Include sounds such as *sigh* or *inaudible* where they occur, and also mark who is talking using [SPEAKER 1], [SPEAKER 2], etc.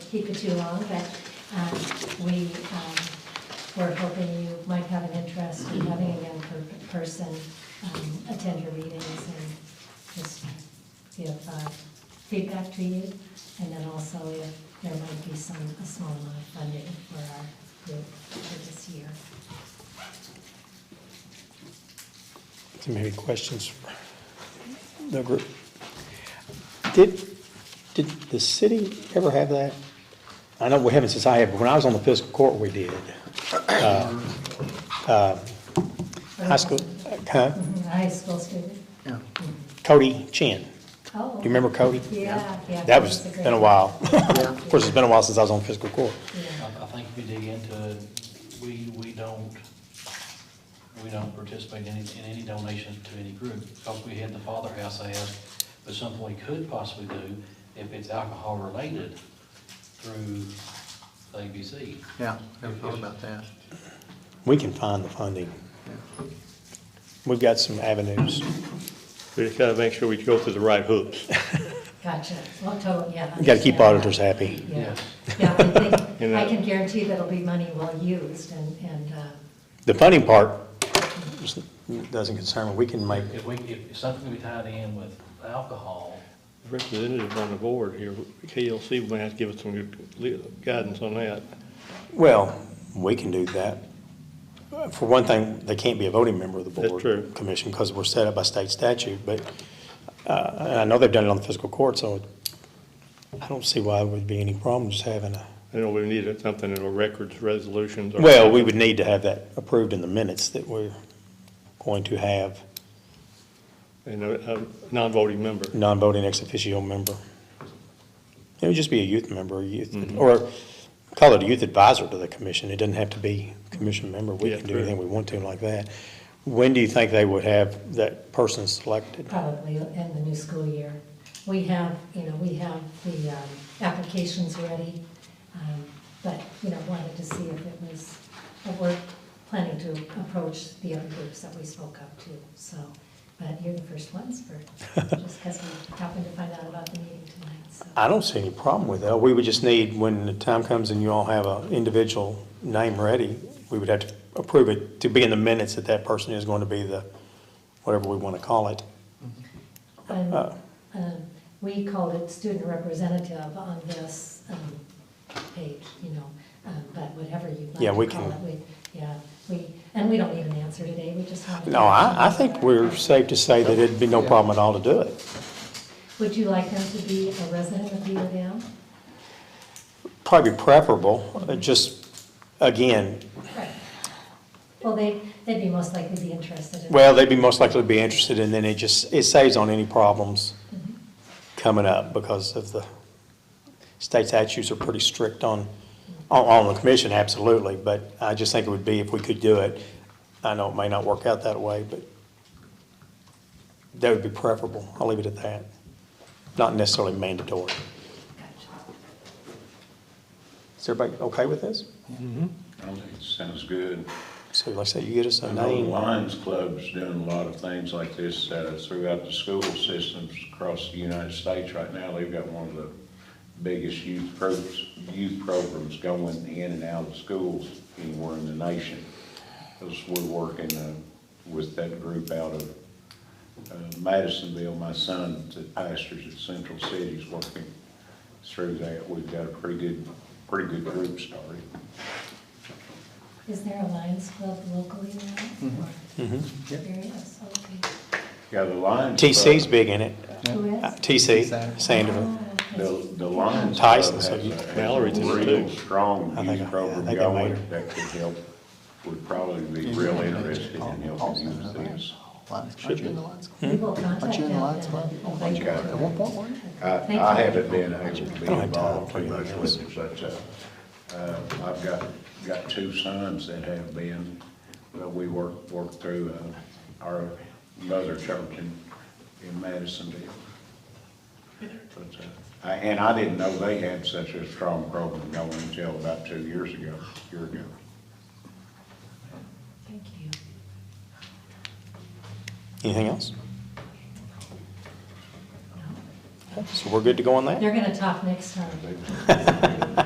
[SPEAKER 1] keep it too long, but um, we um, were hoping you might have an interest in having a young per- person um, attend your meetings and just give uh, feedback to you. And then also if there might be some, a small amount of funding for our group for this year.
[SPEAKER 2] So maybe questions for the group. Did, did the city ever have that? I know we haven't since I have, but when I was on the fiscal court, we did. Uh, uh, High school, huh?
[SPEAKER 1] Mhm, High school student.
[SPEAKER 3] Yeah.
[SPEAKER 2] Cody Chin.
[SPEAKER 1] Oh.
[SPEAKER 2] Do you remember Cody?
[SPEAKER 1] Yeah, yeah.
[SPEAKER 2] That was,
[SPEAKER 1] a great-
[SPEAKER 2] been a while.
[SPEAKER 3] Yeah.
[SPEAKER 2] *laughs* Of course, it's been a while since I was on fiscal court.
[SPEAKER 1] Yeah.
[SPEAKER 4] I, I think if you dig into it, we, we don't, we don't participate in, any- in any donations to any group, because we had the Father House ask, but something we could possibly do, if it's alcohol related, through the ABC.
[SPEAKER 3] Yeah, never thought about that.
[SPEAKER 2] We can find the funding.
[SPEAKER 3] Yeah.
[SPEAKER 2] We've got some avenues.
[SPEAKER 5] We just gotta make sure we go through the right hoops.
[SPEAKER 1] Gotcha. Well, totally, yeah.
[SPEAKER 2] You gotta keep auditors happy.
[SPEAKER 1] Yeah,
[SPEAKER 4] Yes.
[SPEAKER 1] yeah, I think,
[SPEAKER 5] *laughs* You
[SPEAKER 1] I
[SPEAKER 5] know.
[SPEAKER 1] can guarantee that'll be money well used and, and, uh,
[SPEAKER 2] The funding part is- doesn't concern me. We can make
[SPEAKER 4] If we, if something could be tied in with alcohol,
[SPEAKER 5] Representative on the board here, KLC may have to give us some good guidance on that.
[SPEAKER 2] Well, we can do that. For one thing, they can't be a voting member of the board.
[SPEAKER 5] That's true.
[SPEAKER 2] Commission, because we're set up by state statute, but, uh, and I know they've done it on the fiscal court, so I don't see why there would be any problem just having a,
[SPEAKER 5] I know we need something in our records, resolutions. or-
[SPEAKER 2] well, we would need to have that approved in the minutes that we're going to have
[SPEAKER 5] And a, a non-voting member.
[SPEAKER 2] non-voting ex officio member. It would just be a youth member, a youth,
[SPEAKER 5] Mm-hmm.
[SPEAKER 2] or call it a youth advisor to the commission. It doesn't have to be a commission member. We
[SPEAKER 5] Yeah,
[SPEAKER 2] can do
[SPEAKER 5] true.
[SPEAKER 2] anything we want to like that. When do you think they would have that person selected?
[SPEAKER 1] probably in the new school year. We have, you know, we have the, um, applications ready, um, but, you know, wanted to see if it was, if we're planning to approach the other groups that we spoke up to, so. But you're the first ones for, just because we happened to find out about the meeting tonight, so.
[SPEAKER 2] I don't see any problem with that. We would just need, when the time comes and you all have an individual name ready, we would have to approve it to be in the minutes that that person is going to be the, whatever we want to call it.
[SPEAKER 1] And,
[SPEAKER 2] Uh.
[SPEAKER 1] um, We called it student representative on this um, page, you know, um, but whatever you'd
[SPEAKER 2] Yeah,
[SPEAKER 1] like
[SPEAKER 2] we
[SPEAKER 1] to call it.
[SPEAKER 2] can-
[SPEAKER 1] we- Yeah, we, and we don't need an answer today, we just want. to-
[SPEAKER 2] No, I, I think we're safe to say that it'd be no problem at all to do it.
[SPEAKER 1] Would you like them to be a resident of U of M?
[SPEAKER 2] probably preferable, uh, just, again,
[SPEAKER 1] Right. Well, they, they'd be most likely be interested in.
[SPEAKER 2] well, they'd be most likely to be interested, and then it just, it saves on any problems coming up because of the state statutes are pretty strict on, on, on the commission, absolutely, but I just think it would be if we could do it. I know it may not work out that way, but that would be preferable. I'll leave it at that. Not necessarily mandatory.
[SPEAKER 1] Gotcha.
[SPEAKER 2] Is everybody okay with this?
[SPEAKER 6] I think it sounds good.
[SPEAKER 2] So like I say, you get us a
[SPEAKER 6] I know the
[SPEAKER 2] name.
[SPEAKER 6] Lions Club's doing a lot of things like this uh, throughout the school systems across the United States right now. They've got one of the biggest youth programs, youth programs going in and out of schools anywhere in the nation. Because we're working uh, with that group out of uh, Madisonville. My son that pastors at Central City's working through that. We've got a pretty good, pretty good group started.
[SPEAKER 1] Is there a Lions Club locally now?
[SPEAKER 2] Mhm.
[SPEAKER 3] Yep.
[SPEAKER 1] There is, okay.
[SPEAKER 6] Yeah, the Lions. Club-
[SPEAKER 2] TC's big in it.
[SPEAKER 1] Who
[SPEAKER 2] Uh,
[SPEAKER 1] is?
[SPEAKER 2] TC,
[SPEAKER 3] Saturday.
[SPEAKER 2] Sanderville.
[SPEAKER 1] Oh, okay.
[SPEAKER 6] The, the Lions. Club
[SPEAKER 2] Tyson, so
[SPEAKER 6] has
[SPEAKER 2] you-
[SPEAKER 6] a- has a
[SPEAKER 5] Mallory's in it
[SPEAKER 6] real
[SPEAKER 5] too.
[SPEAKER 2] I
[SPEAKER 6] Strong
[SPEAKER 2] think I-
[SPEAKER 6] youth
[SPEAKER 2] I
[SPEAKER 6] program
[SPEAKER 2] think I might
[SPEAKER 6] going
[SPEAKER 2] have.
[SPEAKER 6] that could help, would probably be real interested in helping youth things.
[SPEAKER 3] Lions, aren't you in the Lions Club?
[SPEAKER 1] We will contact them.
[SPEAKER 3] Hmm? Aren't you in the Lions Club? Oh, aren't you? Uh, At one point, weren't you?
[SPEAKER 6] I,
[SPEAKER 1] Thank
[SPEAKER 6] I
[SPEAKER 1] you.
[SPEAKER 6] haven't been able to be
[SPEAKER 2] don't have
[SPEAKER 6] involved
[SPEAKER 2] time
[SPEAKER 6] too
[SPEAKER 2] for
[SPEAKER 6] much
[SPEAKER 2] anything
[SPEAKER 6] with it, but, uh, uh, I've got, got two sons that have been, well, we work, work through, uh, our mother church in, in Madisonville. But, uh, I- And I didn't know they had such a strong program going until about two years ago, year ago.
[SPEAKER 1] Thank you.
[SPEAKER 2] Anything else?
[SPEAKER 1] No.
[SPEAKER 2] So we're good to go on that?
[SPEAKER 1] They're gonna talk next time.
[SPEAKER 6] They-